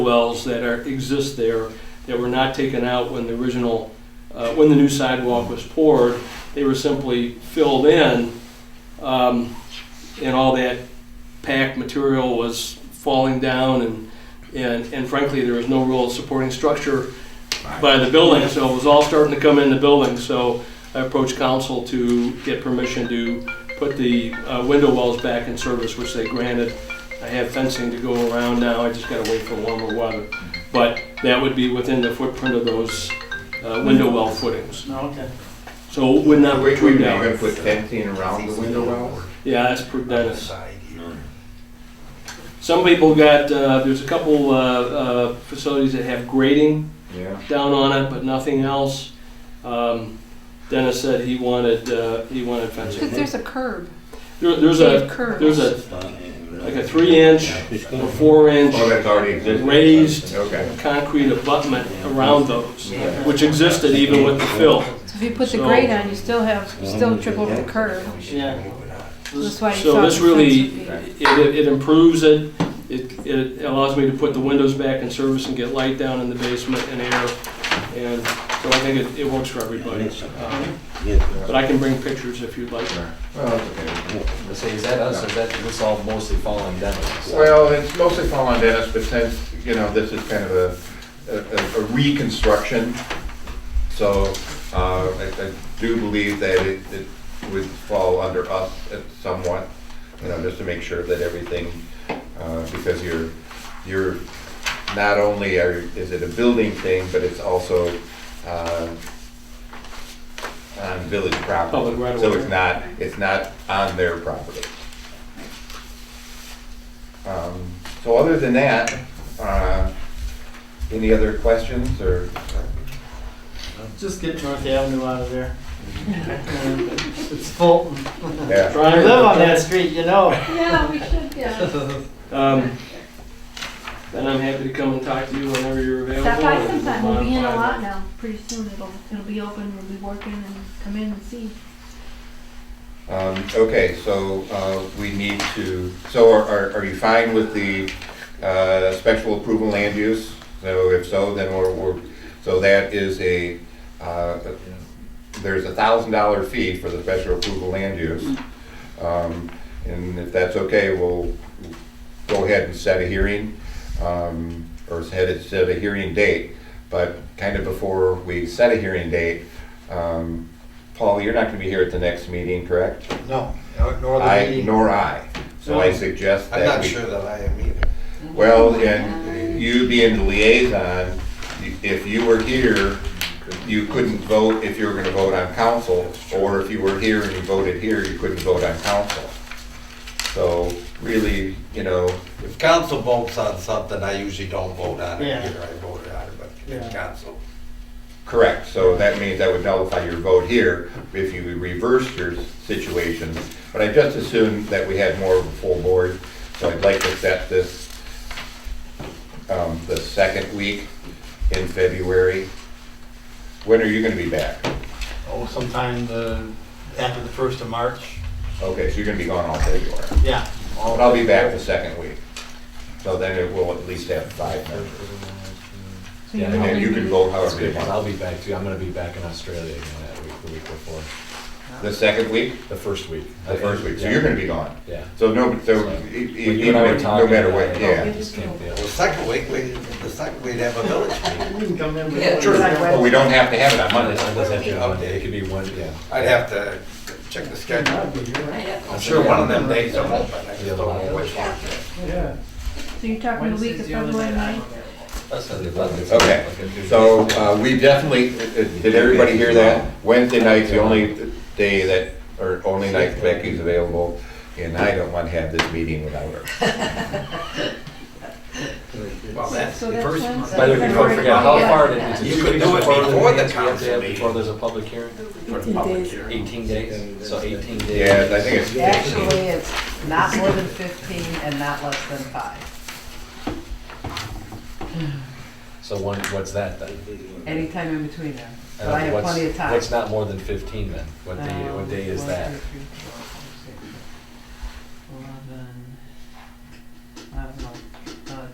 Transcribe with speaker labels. Speaker 1: wells that are, exist there that were not taken out when the original, uh, when the new sidewalk was poured. They were simply filled in, um, and all that packed material was falling down and, and, and frankly, there was no real supporting structure by the building, so it was all starting to come in the building, so I approached council to get permission to put the, uh, window wells back in service, which they granted. I have fencing to go around now, I just gotta wait for warmer weather. But that would be within the footprint of those uh, window well footings.
Speaker 2: Okay.
Speaker 1: So it would not
Speaker 3: We, we
Speaker 1: protrude
Speaker 3: may have
Speaker 1: down.
Speaker 3: put fencing around the window well.
Speaker 1: Yeah, that's per Dennis.
Speaker 4: here.
Speaker 1: Some people got, uh, there's a couple uh, uh, facilities that have grading
Speaker 3: Yeah.
Speaker 1: down on it, but nothing else. Um, Dennis said he wanted, uh, he wanted fencing.
Speaker 5: Because there's a curb.
Speaker 1: There- There's
Speaker 5: They
Speaker 1: a,
Speaker 5: have curves.
Speaker 1: there's a, like a three inch or four inch
Speaker 3: Oh, that's already existed.
Speaker 1: raised
Speaker 3: Okay.
Speaker 1: concrete abutment around those,
Speaker 3: Yeah.
Speaker 1: which existed even with the fill.
Speaker 5: So if you put the
Speaker 1: So-
Speaker 5: grate on, you still have, you still trip over the curb.
Speaker 1: Yeah.
Speaker 5: That's why you
Speaker 1: So
Speaker 5: thought
Speaker 1: this
Speaker 5: the fence
Speaker 1: really,
Speaker 5: would be-
Speaker 1: it, it improves it, it, it allows me to put the windows back in service and get light down in the basement and air. And so I think it, it works for everybody. Um, But I can bring pictures if you'd like.
Speaker 3: Well, it's Oh, okay.
Speaker 6: So is that us, or is that, this all mostly falling down?
Speaker 3: Well, it's mostly fallen Dennis, but since, you know, this is kind of a, a- a reconstruction, so, uh, I, I do believe that it, it would fall under us at somewhat, you know, just to make sure that everything, uh, because you're, you're, not only are, is it a building thing, but it's also, uh, on village property.
Speaker 1: Public right of
Speaker 3: So
Speaker 1: way.
Speaker 3: it's not, it's not on their property. Um, So other than that, uh, any other questions or?
Speaker 2: Just get North Avenue out of there. It's Fulton.
Speaker 3: Yeah.
Speaker 2: I live on that street, you know.
Speaker 7: Yeah, we should, yeah.
Speaker 1: Um, Then I'm happy to come and talk to you whenever you're available.
Speaker 7: Stop by
Speaker 1: and
Speaker 7: sometime, we'll be in a
Speaker 1: modify
Speaker 7: lot now, pretty soon, it'll, it'll be open, we'll be working and come in and see.
Speaker 3: Um, Okay, so uh, we need to, so are- are are you fine with the uh, special approval land use? So if so, then we're, we're- so that is a, uh, there's a thousand dollar fee for the special approval land use. Um, And if that's okay, we'll go ahead and set a hearing, um, or set a, set a hearing date. But kind of before we set a hearing date, um, Paul, you're not gonna be here at the next meeting, correct?
Speaker 4: No, nor the
Speaker 3: I,
Speaker 4: meeting.
Speaker 3: nor I. So I
Speaker 1: No.
Speaker 3: suggest that
Speaker 4: I'm
Speaker 3: we.
Speaker 4: not sure that I am either.
Speaker 3: Well, and you being the liaison, y- if you were here, you couldn't vote if you were gonna vote on council, or if you were here and you voted here, you couldn't vote on council. So really, you know,
Speaker 4: If council votes on something, I usually don't vote on
Speaker 2: Yeah.
Speaker 4: it here, I voted on it, but
Speaker 2: Yeah.
Speaker 4: if council.
Speaker 3: correct, so that means that would nullify your vote here if you reversed your situation. But I just assumed that we had more of a full board, so I'd like to set this, um, the second week in February. When are you gonna be back?
Speaker 8: Oh, sometime the, after the first of March,
Speaker 3: Okay, so you're gonna be gone all February.
Speaker 8: yeah.
Speaker 3: But I'll be back the second week. So then it will at least have five members.
Speaker 5: so you
Speaker 6: Yeah,
Speaker 3: And
Speaker 5: only
Speaker 3: then you can
Speaker 5: need-
Speaker 3: vote
Speaker 6: That's
Speaker 3: however
Speaker 6: good,
Speaker 3: you
Speaker 6: 'cause
Speaker 3: want.
Speaker 6: I'll be back too, I'm gonna be back in Australia again that week, the week before,
Speaker 3: The second week,
Speaker 6: the first week.
Speaker 3: the first week, so you're gonna be gone.
Speaker 6: Yeah.
Speaker 3: So no, so
Speaker 6: So-
Speaker 3: e- e-
Speaker 6: When you and I were
Speaker 3: even, no
Speaker 6: talking uh,
Speaker 3: matter
Speaker 6: about
Speaker 3: what,
Speaker 6: it,
Speaker 3: yeah.
Speaker 6: I just can't deal.
Speaker 4: Well, second week, we, the second we'd have a village meeting.
Speaker 2: We can come in.
Speaker 4: Yeah,
Speaker 2: with-
Speaker 4: sure.
Speaker 3: But we don't have to have it on
Speaker 6: Monday, it
Speaker 3: Monday.
Speaker 6: doesn't have to be Monday, it could be one, yeah.
Speaker 4: I'd have to check the schedule. I'm
Speaker 6: That's
Speaker 4: sure
Speaker 6: okay.
Speaker 4: one of them days I'm open, I just
Speaker 6: Yeah,
Speaker 4: don't know which one.
Speaker 2: Yeah.
Speaker 7: So you're talking the week of
Speaker 2: Wednesday's the only
Speaker 7: February
Speaker 2: night I'm
Speaker 7: ninth?
Speaker 2: available.
Speaker 6: That's not the eleventh.
Speaker 3: Okay, so uh, we definitely, uh, uh, did everybody hear that? Wednesday night's the only day that, or only night Becky's available, and I don't want to have this meeting without her.
Speaker 4: Well, that's
Speaker 5: So
Speaker 4: the
Speaker 5: that's
Speaker 4: first.
Speaker 5: Wednesday.
Speaker 6: By the way, before I forget, how far, did- it's a
Speaker 4: You
Speaker 6: two
Speaker 4: could
Speaker 6: weeks
Speaker 4: do it
Speaker 6: before
Speaker 4: before
Speaker 6: the
Speaker 4: the
Speaker 6: meeting, so we have to
Speaker 4: council
Speaker 6: have
Speaker 4: meeting.
Speaker 6: before there's a public hearing? Eighteen days, so eighteen days.
Speaker 3: Yeah, I think it's
Speaker 9: Actually,
Speaker 3: fifteen.
Speaker 9: it's not more than fifteen and not less than five.
Speaker 6: So one, what's that then?
Speaker 9: Anytime in between them.
Speaker 6: And
Speaker 9: But I have
Speaker 6: what's-
Speaker 9: plenty of time.
Speaker 6: What's not more than fifteen then? What day, what day is
Speaker 9: Um,
Speaker 6: that?
Speaker 9: one, two, three, four,